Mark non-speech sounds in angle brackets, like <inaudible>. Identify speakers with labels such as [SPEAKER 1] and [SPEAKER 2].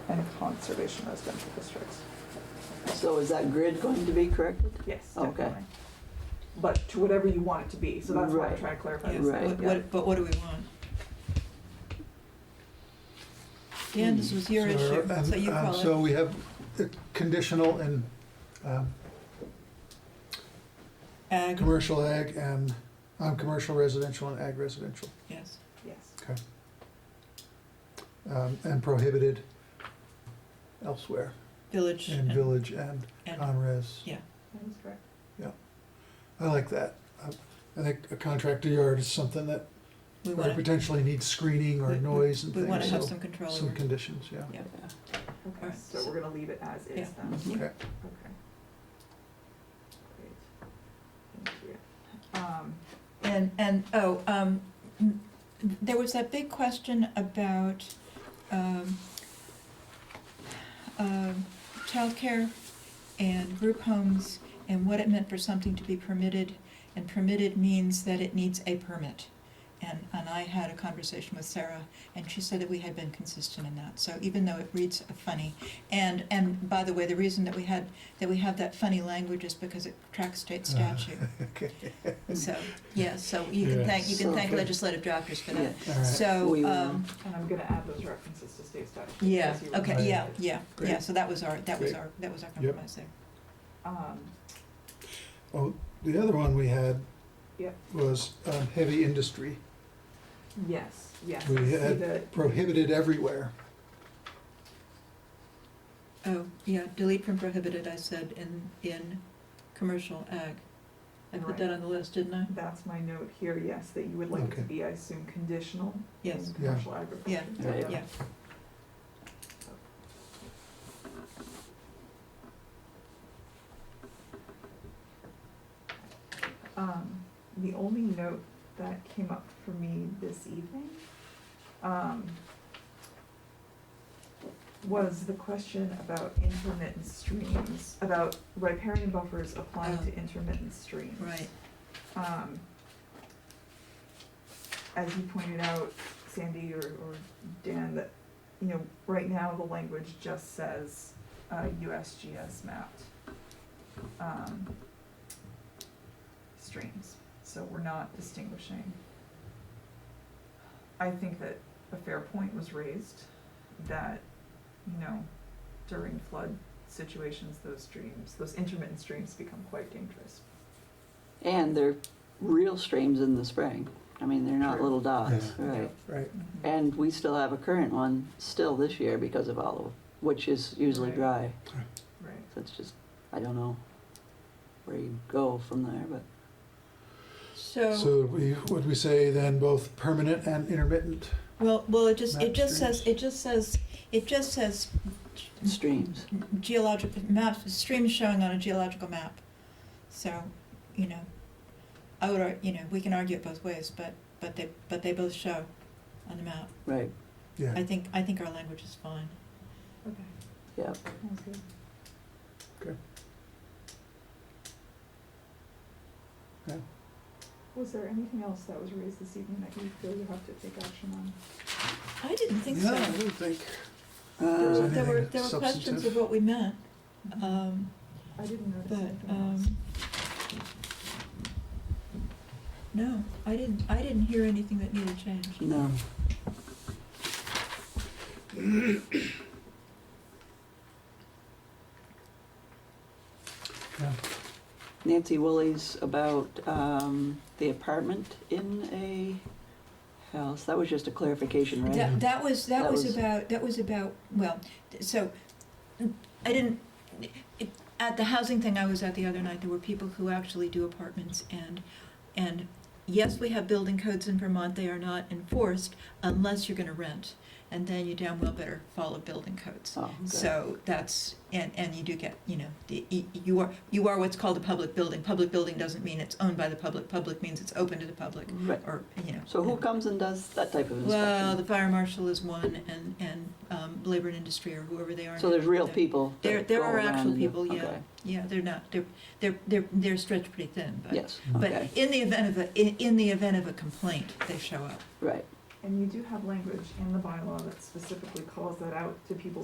[SPEAKER 1] and conservation residential districts.
[SPEAKER 2] So is that grid going to be corrected?
[SPEAKER 1] Yes,
[SPEAKER 2] Okay.
[SPEAKER 1] definitely. But to whatever you want it to be, so that's what I'm
[SPEAKER 2] Right.
[SPEAKER 1] trying to clarify.
[SPEAKER 3] Yes,
[SPEAKER 1] this.
[SPEAKER 2] Right.
[SPEAKER 3] what-
[SPEAKER 1] Yeah.
[SPEAKER 3] what- but what do we want? Dan, this was your issue,
[SPEAKER 4] and-
[SPEAKER 3] so you
[SPEAKER 4] and
[SPEAKER 3] call
[SPEAKER 4] um, So
[SPEAKER 3] it.
[SPEAKER 4] we have uh, conditional and um,
[SPEAKER 3] Ag,
[SPEAKER 4] commercial ag and, um, commercial residential and ag residential.
[SPEAKER 3] yes.
[SPEAKER 1] Yes.
[SPEAKER 4] um, And prohibited elsewhere
[SPEAKER 3] Village
[SPEAKER 4] in uh,
[SPEAKER 3] and,
[SPEAKER 4] village and
[SPEAKER 3] and,
[SPEAKER 4] non-res.
[SPEAKER 1] That is correct.
[SPEAKER 4] I like that. I- I think a contractor yard is something that
[SPEAKER 3] we
[SPEAKER 4] very
[SPEAKER 3] wanna,
[SPEAKER 4] potentially needs screening or
[SPEAKER 3] We-
[SPEAKER 4] noise and
[SPEAKER 3] we wanna
[SPEAKER 4] things,
[SPEAKER 3] have
[SPEAKER 4] so
[SPEAKER 3] some control
[SPEAKER 4] some
[SPEAKER 3] over.
[SPEAKER 4] conditions,
[SPEAKER 3] <laughs>
[SPEAKER 4] yeah.
[SPEAKER 3] Yeah.
[SPEAKER 1] Okay,
[SPEAKER 3] Alright.
[SPEAKER 1] so we're gonna leave it as
[SPEAKER 3] Yeah. Mm-hmm.
[SPEAKER 1] is then.
[SPEAKER 3] Yeah.
[SPEAKER 4] Okay.
[SPEAKER 1] Okay. Great. Thank you. Um,
[SPEAKER 3] And, and, oh, um, n- there was that big question about, um, um, childcare and group homes and what it meant for something to be permitted. And permitted means that it needs a permit. And, and I had a conversation with Sarah and she said that we had been consistent in that. So even though it reads funny, and, and by the way, the reason that we had, that we have that funny language is because it tracks state statute.
[SPEAKER 4] Okay.
[SPEAKER 3] So, yeah, so you can
[SPEAKER 4] Yeah.
[SPEAKER 3] thank, you can
[SPEAKER 2] So
[SPEAKER 3] thank
[SPEAKER 4] good.
[SPEAKER 3] legislative drafters for that.
[SPEAKER 4] All right.
[SPEAKER 2] We
[SPEAKER 3] So,
[SPEAKER 2] will.
[SPEAKER 3] um,
[SPEAKER 1] and I'm gonna add those references to state statute.
[SPEAKER 3] yeah,
[SPEAKER 1] as you
[SPEAKER 3] okay,
[SPEAKER 1] reminded
[SPEAKER 3] yeah,
[SPEAKER 1] me.
[SPEAKER 3] yeah, yeah,
[SPEAKER 4] Great.
[SPEAKER 3] so that was our, that was
[SPEAKER 4] Great.
[SPEAKER 3] our, that was our
[SPEAKER 4] Yep.
[SPEAKER 3] compromise there.
[SPEAKER 1] Um,
[SPEAKER 4] The other one we had
[SPEAKER 1] Yep.
[SPEAKER 4] was um, heavy industry
[SPEAKER 1] yes, yes.
[SPEAKER 4] We
[SPEAKER 1] I see
[SPEAKER 4] had-
[SPEAKER 1] the-
[SPEAKER 4] prohibited everywhere.
[SPEAKER 3] Oh, yeah, delete from prohibited, I said, in, in commercial ag. I put that
[SPEAKER 1] Right.
[SPEAKER 3] on the list, didn't I?
[SPEAKER 1] That's my note here, yes, that you would like it to
[SPEAKER 4] Okay.
[SPEAKER 1] be, I assume, conditional
[SPEAKER 3] Yes,
[SPEAKER 1] in commercial agriculture.
[SPEAKER 2] Yeah. Yeah.
[SPEAKER 3] yeah.
[SPEAKER 1] Um, the only note that came up for me this evening, um, was the question about intermittent streams, about riparian buffers applying
[SPEAKER 3] Oh.
[SPEAKER 1] to intermittent streams.
[SPEAKER 3] right,
[SPEAKER 1] Um, as you pointed out, Sandy or, or Dan, that, you know, right now the language just says, uh, USGS mapped, um, streams, so we're not distinguishing. I think that a fair point was raised, that, you know, during flood situations, those streams, those intermittent streams become quite dangerous.
[SPEAKER 2] And they're real streams in the spring. I mean, they're not
[SPEAKER 1] True.
[SPEAKER 2] little dots,
[SPEAKER 1] Yeah.
[SPEAKER 2] right?
[SPEAKER 4] Right.
[SPEAKER 1] Mhm.
[SPEAKER 2] And we still have a current one still this year because of olive, which is usually
[SPEAKER 1] Right.
[SPEAKER 2] dry.
[SPEAKER 1] Right.
[SPEAKER 2] So it's just, I don't know where you go from there, but
[SPEAKER 3] so,
[SPEAKER 4] So we, would we say then both permanent and intermittent?
[SPEAKER 3] well, well, it just, it
[SPEAKER 4] Map
[SPEAKER 3] just
[SPEAKER 4] streams.
[SPEAKER 3] says, it just says, it just says
[SPEAKER 1] Mm-hmm.
[SPEAKER 2] streams.
[SPEAKER 3] geologic maps, streams showing on a geological map. So, you know, I would, ar- you know, we can argue it both ways, but, but they, but they both show on the map.
[SPEAKER 2] Right.
[SPEAKER 4] Yeah,
[SPEAKER 3] I think, I think our language is fine.
[SPEAKER 1] Okay.
[SPEAKER 2] Yep.
[SPEAKER 1] Sounds good.
[SPEAKER 4] Okay. Yeah.
[SPEAKER 1] Was there anything else that was raised this evening that you feel you have to take action on?
[SPEAKER 3] I didn't think
[SPEAKER 4] yeah,
[SPEAKER 3] so.
[SPEAKER 4] I don't think,
[SPEAKER 3] There
[SPEAKER 4] was
[SPEAKER 3] were,
[SPEAKER 4] anything
[SPEAKER 3] there were, there were questions
[SPEAKER 4] substantive.
[SPEAKER 3] of what we meant, um,
[SPEAKER 1] I didn't notice
[SPEAKER 3] but,
[SPEAKER 1] anything else.
[SPEAKER 3] um, no, I didn't, I didn't hear anything that needed change.
[SPEAKER 2] No.
[SPEAKER 4] yeah,
[SPEAKER 2] Nancy Woolley's about um, the apartment in a house. That was just a clarification, right?
[SPEAKER 3] That, that was, that
[SPEAKER 2] That
[SPEAKER 3] was
[SPEAKER 2] was-
[SPEAKER 3] about, that was about, well, th- so, I didn't, it, at the housing thing I was at the other night, there were people who actually do apartments and, and yes, we have building codes in Vermont, they are not enforced unless you're gonna rent. And then you damn well better follow building codes.
[SPEAKER 2] Oh, okay.
[SPEAKER 3] So that's, and, and you do get, you know, the- y- you are, you are what's called a public building. Public building doesn't mean it's owned by the public, public means it's open to the public,
[SPEAKER 2] Right.
[SPEAKER 3] or, you know.
[SPEAKER 2] So who comes and does that type of inspection?
[SPEAKER 3] Well, the fire marshal is one, and, and um, labor and industry, or whoever they are.
[SPEAKER 2] So there's real
[SPEAKER 3] They're-
[SPEAKER 2] people. that
[SPEAKER 3] There, there
[SPEAKER 2] go
[SPEAKER 3] are
[SPEAKER 2] around
[SPEAKER 3] actual
[SPEAKER 2] and do-
[SPEAKER 3] people, yeah,
[SPEAKER 2] okay.
[SPEAKER 3] yeah, they're not, they're, they're, they're, they're stretched pretty thin, but.
[SPEAKER 2] Yes,
[SPEAKER 3] But
[SPEAKER 2] okay,
[SPEAKER 3] in the event of a, in, in the event of a complaint, they show up.
[SPEAKER 2] right.
[SPEAKER 1] And you do have language in the bylaw that specifically calls that out to people